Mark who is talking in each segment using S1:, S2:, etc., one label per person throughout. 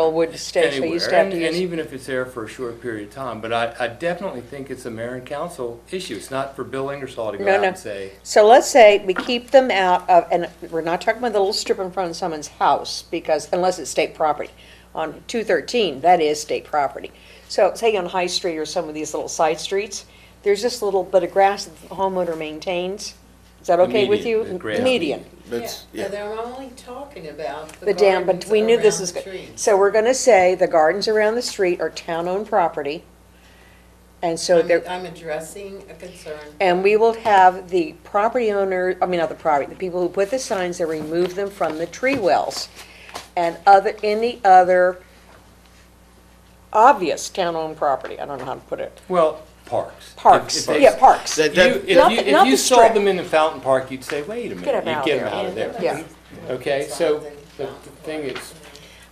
S1: Elwood Station, they used to
S2: anywhere,
S1: have to
S2: and, and
S1: use.
S2: even if it's there for a short period of time, but I, I definitely think it's a mayor and council issue. It's not for Bill Ingersoll to go
S1: No,
S2: out
S1: no.
S2: and say,
S1: So let's say we keep them out of, and we're not talking about the little strip in front of someone's house, because unless it's state property. On two thirteen, that is state property. So say on High Street or some of these little side streets, there's this little bit of grass that the homeowner maintains. Is that
S2: The
S1: okay with
S2: median,
S1: you?
S2: the grass
S1: The Median.
S3: That's,
S4: Yeah,
S3: yeah.
S4: so they're only talking about the
S1: The dam, but
S4: gardens
S1: we knew this
S4: around
S1: is,
S4: the
S1: go-
S4: trees.
S1: so we're gonna say the gardens around the street are town-owned property. And so
S4: I'm,
S1: they're.
S4: I'm addressing a concern.
S1: And we will have the property owner, I mean, not the property, the people who put the signs, they remove them from the tree wells. And other, any other obvious town-owned property, I don't know how to put it,
S2: well, parks. If- if
S1: parks,
S2: they-
S1: yeah, parks.
S2: You, if
S3: That- that-
S2: you,
S1: Not the-
S2: if
S1: not
S2: you
S1: the
S2: saw
S1: strip.
S2: them in the fountain park, you'd say, wait a minute,
S1: them out
S2: you get
S1: of
S2: them out of
S4: there.
S2: there.
S1: Yeah.
S2: Okay, so the thing is,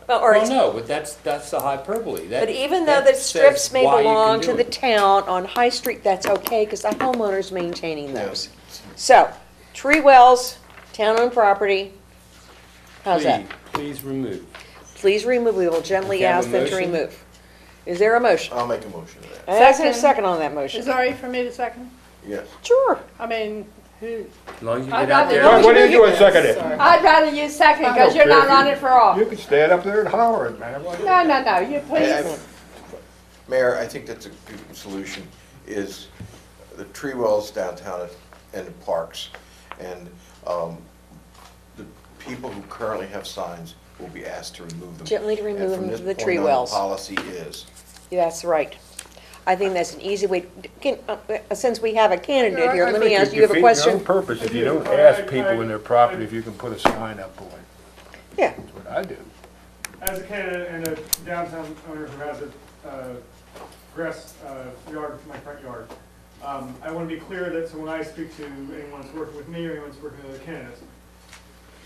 S1: Well, or
S2: well,
S1: it's-
S2: no, but that's, that's the hyperbole. That-
S1: But even though
S2: that
S1: the
S2: says
S1: strips may
S2: why you can
S1: belong
S2: do
S1: to the
S2: it.
S1: town on High Street, that's okay, because the homeowner's maintaining those. So, tree wells, town-owned property, how's that?
S2: Please- Please remove.
S1: Please remove, we will gently
S2: Okay, I have
S1: ask
S2: a
S1: them to
S2: motion.
S1: remove. Is there a motion?
S3: I'll make a motion to that,
S1: And I have a
S5: Second.
S1: second on that
S5: Is
S1: motion.
S5: it all right for me to second?
S3: yes.
S1: Sure.
S5: I mean, who,
S2: As long as you
S5: I
S2: get out
S5: got it.
S2: there.
S6: What what are you doing second it?
S4: Sorry.
S5: I'd rather you second
S6: I don't
S5: because you're
S6: care
S5: not
S6: if you-
S5: on it for all.
S6: You can stand up there and holler at man.
S5: No, no, no, you
S3: I-
S5: please.
S3: I- Mayor, I think that's a good solution, is the tree wells downtown and the parks. And um, the people who currently have signs will be asked to remove them.
S1: Gently to remove
S3: And
S1: them
S3: from this
S1: to the tree
S3: point on,
S1: wells.
S3: Policy is,
S1: Yeah, That's right. I think that's an easy way, can, uh, uh, since we have a candidate here, let me ask, you have a question?
S6: Purpose, if you don't ask people in their property if you can put a sign up on it,
S1: Yeah,
S6: that's what I do.
S7: As a candidate and a downtown owner who has a uh, grass uh, yard, my front yard, um, I want to be clear that, so when I speak to anyone that's working with me or anyone that's working with other candidates,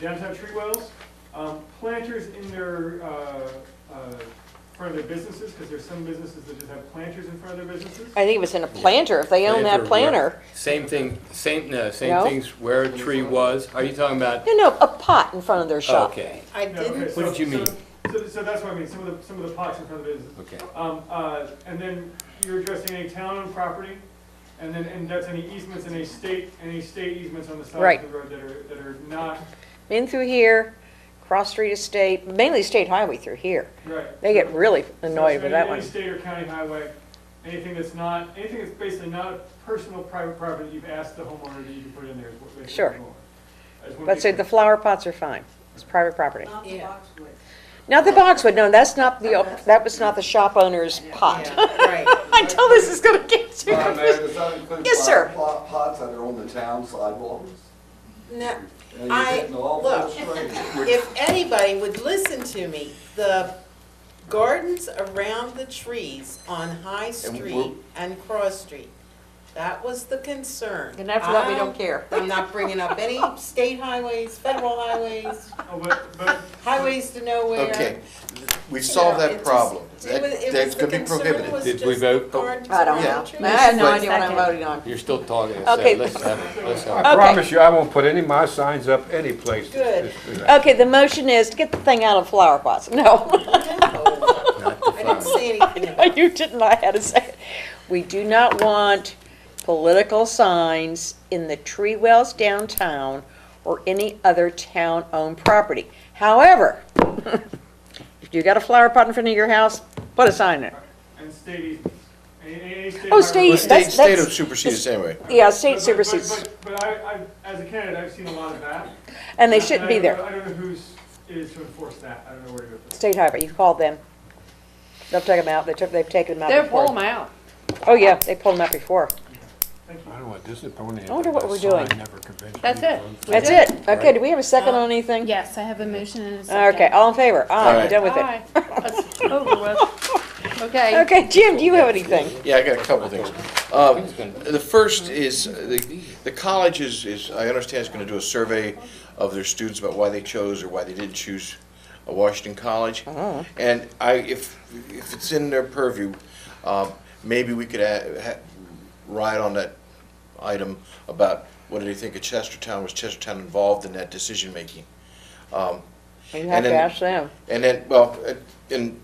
S7: downtown tree wells, um, planters in their, uh, uh, front of their businesses, because there's some businesses that just have planters in front of their businesses.
S1: I think it was in a planter, if they own that
S2: Planter,
S1: planter.
S2: where- Same thing, same, no, same
S1: No?
S2: things where a tree was. Are you talking about,
S1: No, no, a pot in front of their shop.
S2: okay,
S4: I
S7: No, okay,
S4: didn't,
S7: so-
S2: What did you mean?
S7: so- So, so that's what I mean, some of the, some of the pots in front of the businesses.
S2: okay.
S7: Um, uh, and then you're addressing any town-owned property, and then, and that's any easements, any state, any state easements on the
S1: Right.
S7: side of the road that are, that are not,
S1: In through here, cross street estate, mainly state highway through here.
S7: right.
S1: They get really
S7: So-
S1: annoyed with
S7: so any-
S1: that
S7: Any
S1: one.
S7: state or county highway, anything that's not, anything that's basically not a personal private property, that you've asked the homeowner that you can put in there. is what basically
S1: Sure.
S7: the homeowner. I just wanna be
S1: But say
S7: clear.
S1: the flower pots are fine, it's private property.
S4: yeah,
S1: Not the boxwood, no, that's not the, that was not the shop owner's pot.
S4: yeah, right.
S1: I know this is gonna get you.
S8: Madam Mayor, does that include
S1: Yes, sir.
S8: flower pot- Pots that are on the town sidewalks?
S4: No,
S8: And you're
S4: I,
S8: getting all
S4: look,
S8: frustrated.
S4: if anybody would listen to me, the gardens around the trees on High
S3: And
S4: Street
S3: we'll-
S4: and Cross Street, that was the concern.
S1: And after that, we
S4: I-
S1: don't care.
S4: I'm not bringing up any state highways, federal highways,
S7: Oh, but, but
S4: highways to nowhere.
S3: okay, we
S4: You
S3: solved
S4: know, it
S3: that
S4: just-
S3: problem.
S4: it
S3: That,
S4: was- it
S3: that's
S4: was- the
S3: gonna be
S4: concern was
S3: prohibited.
S2: Did we
S4: just
S2: vote?
S4: gardens
S1: I don't
S4: around
S1: know.
S4: the
S1: I have no
S3: Right.
S1: idea what I'm voting on.
S2: You're still talking. so
S1: Okay. Oh,
S2: Let's have it, let's have it.
S6: I promise you, I won't put any of my signs up any place.
S4: Good.
S1: Okay, the motion is to get the thing out of flower pots. No,
S4: No. I didn't say anything about
S1: you didn't, I had to say it. We do not want political signs in the tree wells downtown or any other town-owned property. However, if you got a flower pot in front of your house, put a sign in. it.
S7: and state easements, any, any any state.
S1: Oh,
S7: highway-
S1: state-
S3: The
S1: that's-
S3: state, state
S1: that's-
S3: will supersede us anyway.
S1: Yeah,
S7: But-
S1: state
S7: but-
S1: supersedes,
S7: But, but I, I, as a candidate, I've seen a lot of that.
S1: and they
S7: And I
S1: shouldn't be
S7: don't
S1: there.
S7: know- I don't know who's, is to enforce that, I don't know where to go for that.
S1: State highway, you called them. They'll take them out, they took, they've taken them out
S5: They're
S1: before.
S5: pulling them out.
S1: Oh, yeah, they pulled them out before.
S6: I don't want disappointing.
S1: I wonder what we're doing.
S5: That's it.
S1: That's it. Okay, do we have a second on anything?
S9: Yes, I have a motion and a second.
S1: Okay, all in favor?
S3: All
S1: Aye,
S3: right.
S1: done with it.
S5: Aye. That's over with. Okay.
S1: Okay, Jim, do you have anything?
S3: Yeah, I got a couple of things. Um, The first is, uh, the the college is, is I understand is going to do a survey of their students about why they chose or why they didn't choose a Washington college. And I, if, if it's in their purview, um, maybe we could a- ha- ride on that item about what do they think of Chestertown, was Chestertown involved in that decision-making?
S1: You
S3: have to then- ask
S1: them.
S3: And then, well, uh, and